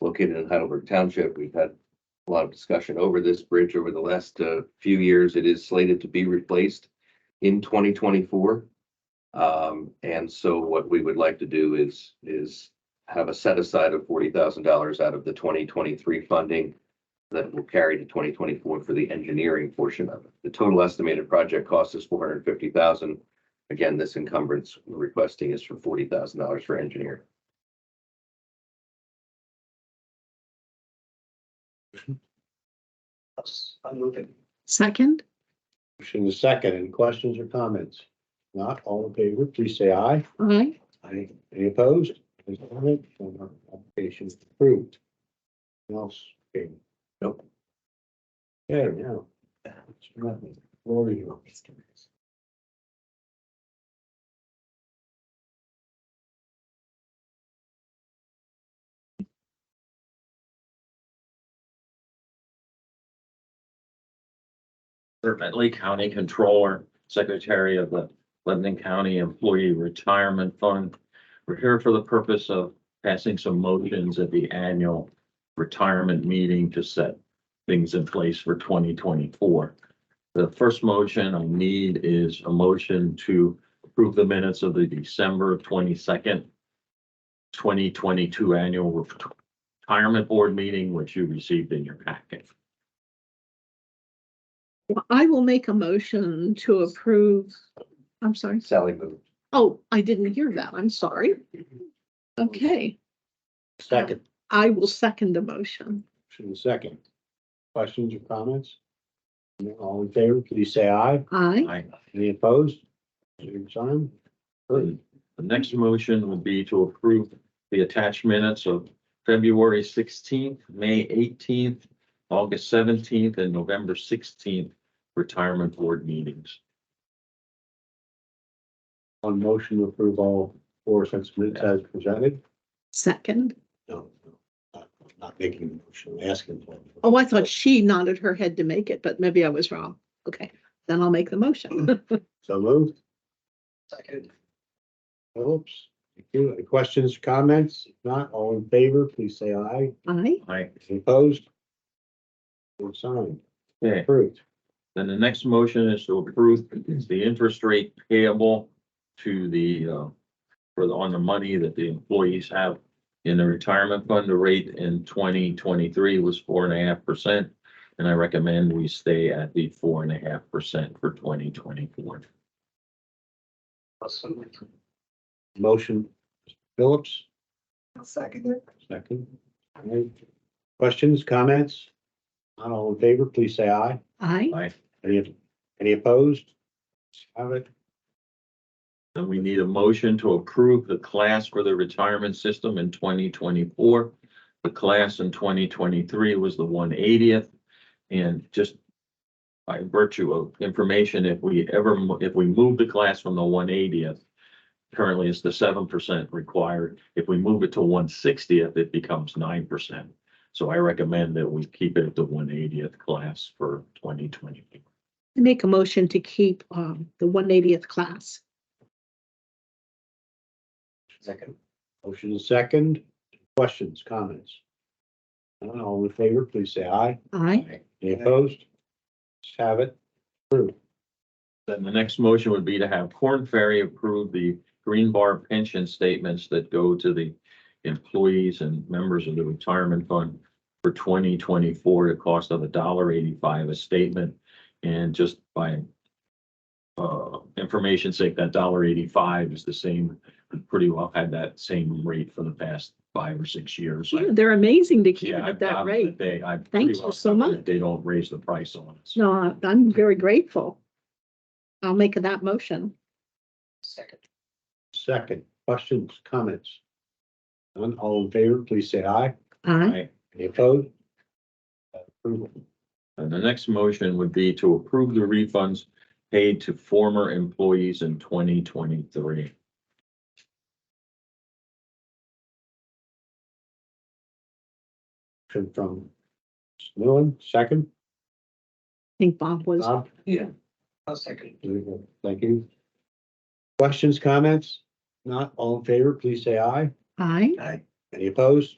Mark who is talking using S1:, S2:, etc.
S1: located in Heidelberg Township. We've had a lot of discussion over this bridge over the last uh, few years. It is slated to be replaced in twenty twenty-four. Um, and so what we would like to do is, is have a set aside of forty thousand dollars out of the twenty twenty-three funding that will carry to twenty twenty-four for the engineering portion of it. The total estimated project cost is four hundred fifty thousand. dollars Again, this encumbrance we're requesting is for forty thousand dollars for engineering.
S2: I'm moving.
S3: Second,
S4: Motion is second. Any questions or comments? Not all in favor, please say aye.
S3: aye.
S4: Aye. Any opposed? Any comment? None. Our Application is approved. Anything Else? Okay. Nope. Okay, now. Floor is yours.
S5: Serpent Lee County Controller, Secretary of the Lebanon County Employee Retirement Fund. We're here for the purpose of passing some motions at the annual retirement meeting to set things in place for twenty twenty-four. The first motion I need is a motion to approve the minutes of the December twenty-second, twenty twenty-two annual retirement board meeting, which you received in your packet.
S3: I will make a motion to approve. I'm sorry.
S1: Sally moved.
S3: Oh, I didn't hear that. I'm sorry. Okay,
S4: Second.
S3: I will second the motion.
S4: Motion is second. Questions or comments? Not All in favor, please say aye.
S3: Aye.
S5: I
S4: Any opposed? Same sign.
S5: Good. The next motion would be to approve the attached minutes of February sixteenth, May eighteenth, August seventeenth, and November sixteenth retirement board meetings.
S4: On motion to approve all four sets of minutes as presented?
S3: Second.
S4: No, no, not- not making the motion, asking for it.
S3: Oh, I thought she nodded her head to make it, but maybe I was wrong. Okay, then I'll make the motion.
S4: So moved.
S2: Second.
S4: Phillips, thank you. Any questions, comments? If Not all in favor, please say aye.
S3: Aye.
S5: Aye.
S4: Any Opposed? Or signed,
S5: Okay,
S4: approved.
S5: then the next motion is to approve the interest rate payable to the, uh, for the, on the money that the employees have in the retirement fund. The rate in twenty twenty-three was four and a half percent. And I recommend we stay at the four and a half percent for twenty twenty-four.
S2: Awesome.
S4: Motion, Phillips,
S2: Second. it.
S4: second. All right. Questions, comments? Not all in favor, please say aye.
S3: Aye.
S5: Aye.
S4: Any, any opposed? Have it.
S5: Then we need a motion to approve the class for the retirement system in twenty twenty-four. The class in twenty twenty-three was the one eightieth. And just by virtue of information, if we ever, mo- if we move the class from the one eightieth, currently it's the seven percent required. If we move it to one sixtieth, it becomes nine percent. So I recommend that we keep it at the one eightieth class for twenty twenty-four.
S3: I Make a motion to keep um the one eightieth class.
S2: Second.
S4: Motion is second. Questions, comments? None, all in favor, please say aye.
S3: Aye.
S4: Any opposed? Just have it. Approved.
S5: Then the next motion would be to have Corn Ferry approve the green bar pension statements that go to the employees and members of the retirement fund for twenty twenty-four, at a cost of a dollar eighty-five a statement. And just by uh, information sake, that dollar eighty-five is the same, pretty well had that same rate for the past five or six years.
S3: Yeah, They're amazing to keep it
S5: Yeah,
S3: at
S5: I-
S3: that
S5: I'm-
S3: rate.
S5: They, I.
S3: Thank you so much.
S5: They don't raise the price on us.
S3: No, I- I'm very grateful. I'll make that motion.
S2: Second.
S4: Second, questions, comments? None, all in favor, please say aye.
S3: Aye.
S5: Right?
S4: Any opposed? Approval.
S5: And the next motion would be to approve the refunds paid to former employees in twenty twenty-three.
S4: Motion from Millen, second.
S3: I think Bob was,
S4: Bob,
S2: I'll second.
S4: thank you. Questions, comments? Not all in favor, please say aye.
S3: aye.
S2: Aye.
S4: Any opposed?